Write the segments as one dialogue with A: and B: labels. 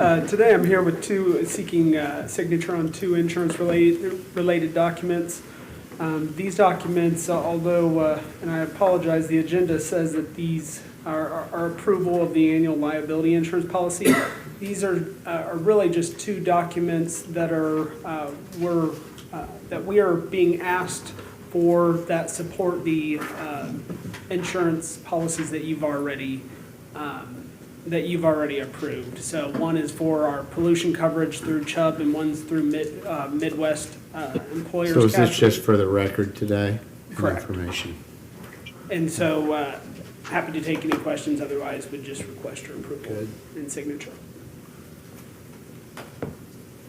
A: Uh, Today, I'm here with two, seeking uh, signature on two insurance-related related documents. Um, These documents, although, uh, and I apologize, the agenda says that these are are- are approval of the annual liability insurance policy. These are uh, are really just two documents that are, uh, were, uh, that we are being asked for that support the um, insurance policies that you've already um, that you've already approved. So one is for our pollution coverage through Chubb, and one's through Mid- uh, Midwest uh, Employers.
B: So is this
A: Casualty.
B: just for the record today? and
A: Correct.
B: Information.
A: And so, uh, happy to take any questions, otherwise would just request your approval
B: Good.
A: and signature.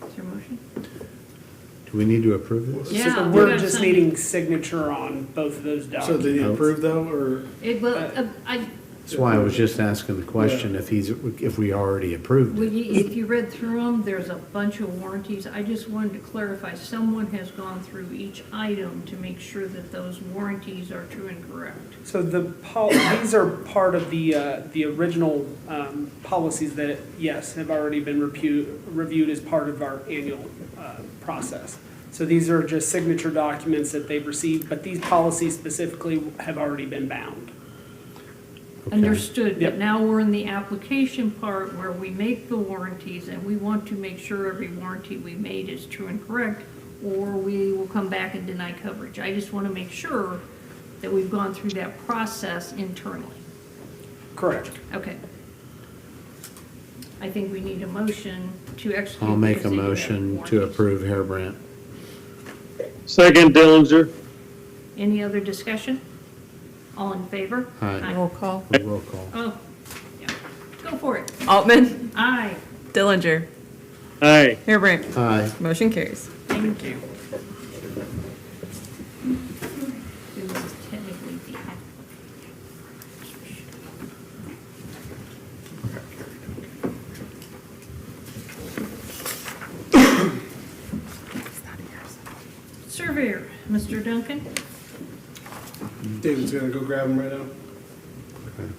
C: Is your motion?
B: Do we need to approve this?
C: Yeah,
A: So
C: we
A: We're
C: gotta
A: just
C: send it.
A: needing signature on both of those
D: So did
A: documents.
D: he approve though, or?
C: It will, uh, I,
B: That's why I was just asking the question if he's, if we already approved
C: when
B: it.
C: you- if you read through them, there's a bunch of warranties. I just wanted to clarify, someone has gone through each item to make sure that those warranties are true and correct.
A: So the, pol- these are part of the, uh, the original um, policies that, yes, have already been repu- reviewed as part of our annual uh, process. So these are just signature documents that they've received, but these policies specifically have already been bound.
B: Okay.
C: Understood,
A: Yep.
C: but now we're in the application part where we make the warranties and we want to make sure every warranty we made is true and correct, or we will come back and deny coverage. I just want to make sure that we've gone through that process internally.
A: Correct.
C: Okay. I think we need a motion to execute.
B: I'll make
C: these
B: a
C: executive
B: motion to
C: warranties.
B: approve Harebrant.
E: Second Dillinger.
C: Any other discussion? All in favor?
B: Aye.
F: Roll call.
B: Roll call.
C: Oh, yeah. Go for it.
F: Altman,
C: Aye.
F: Dillinger,
E: Aye.
F: Harebrant.
B: Aye.
F: Motion carries.
C: Thank you. This is technically the application. Surveyor, Mr. Duncan?
D: David's gonna go grab him right now.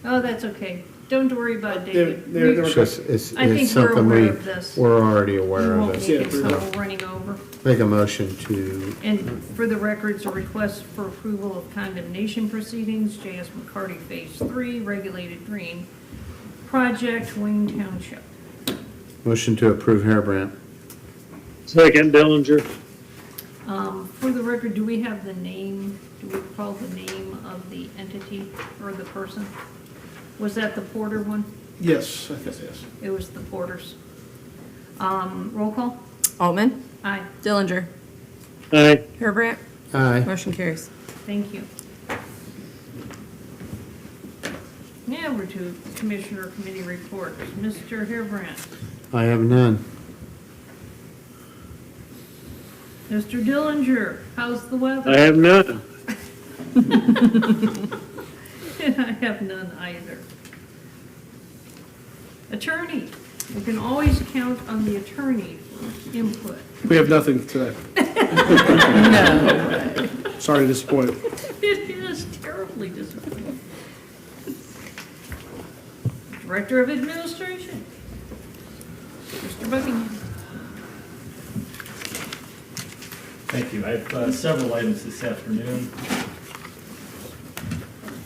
C: Oh, that's okay. Don't worry about David.
D: David, there- there
C: We-
B: It's just, it's,
C: I think
B: it's
C: we're
B: something
C: aware
B: we,
C: of this.
B: we're already aware
C: We
B: of
C: won't make
B: it.
D: Yeah,
C: it, so
D: pretty
C: we're running over.
B: Make a motion to,
C: And for the records, a request for approval of condemnation proceedings, J.S. McCarty Phase Three, Regulated Green Project, Wayne Township.
B: motion to approve Harebrant.
E: Second Dillinger.
C: Um, For the record, do we have the name, do we recall the name of the entity or the person? Was that the Porter one?
D: Yes, I guess, yes.
C: It was the Porters. Um, Roll call?
F: Altman,
C: Aye,
F: Dillinger,
E: Aye.
F: Harebrant.
B: Aye.
F: Motion carries.
C: thank you. Now we're to Commissioner Committee reports. Mr. Harebrant.
B: I have none.
C: Mr. Dillinger, how's the weather?
E: I have none.
C: I have none either. Attorney, you can always count on the attorney for input.
D: We have nothing today.
F: No.
D: Sorry to disappoint.
C: It is terribly disappointing. Director of Administration, Mr. Buckingham.
G: Thank you. I have uh, several items this afternoon.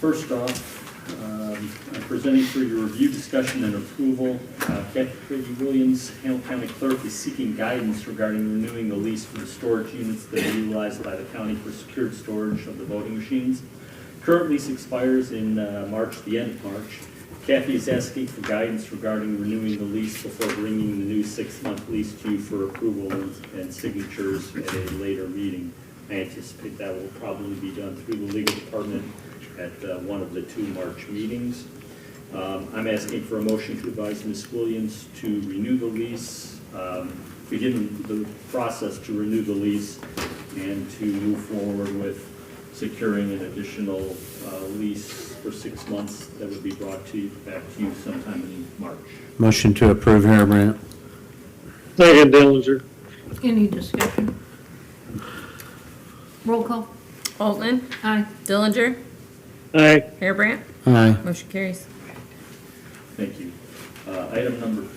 G: First off, um, I'm presenting for your review, discussion, and approval. Uh, Kathy Williams, Hamilton County Clerk, is seeking guidance regarding renewing the lease for the storage units that are utilized by the county for secured storage of the voting machines. Current lease expires in uh, March, the end of March. Kathy is asking for guidance regarding renewing the lease before bringing the new six-month lease to you for approval and and signatures at a later meeting. I anticipate that will probably be done through the legal department at uh, one of the two March meetings. Um, I'm asking for a motion to advise Ms. Williams to renew the lease, um, begin the process to renew the lease, and to move forward with securing an additional uh, lease for six months that would be brought to, you back to you sometime in March.
B: Motion to approve Harebrant.
E: Second Dillinger.
C: Any discussion? Roll call.
F: Altman,
C: Aye.
F: Dillinger,
E: Aye.
F: Harebrant.
B: Aye.
F: Motion carries.
G: Thank you. Uh, Item number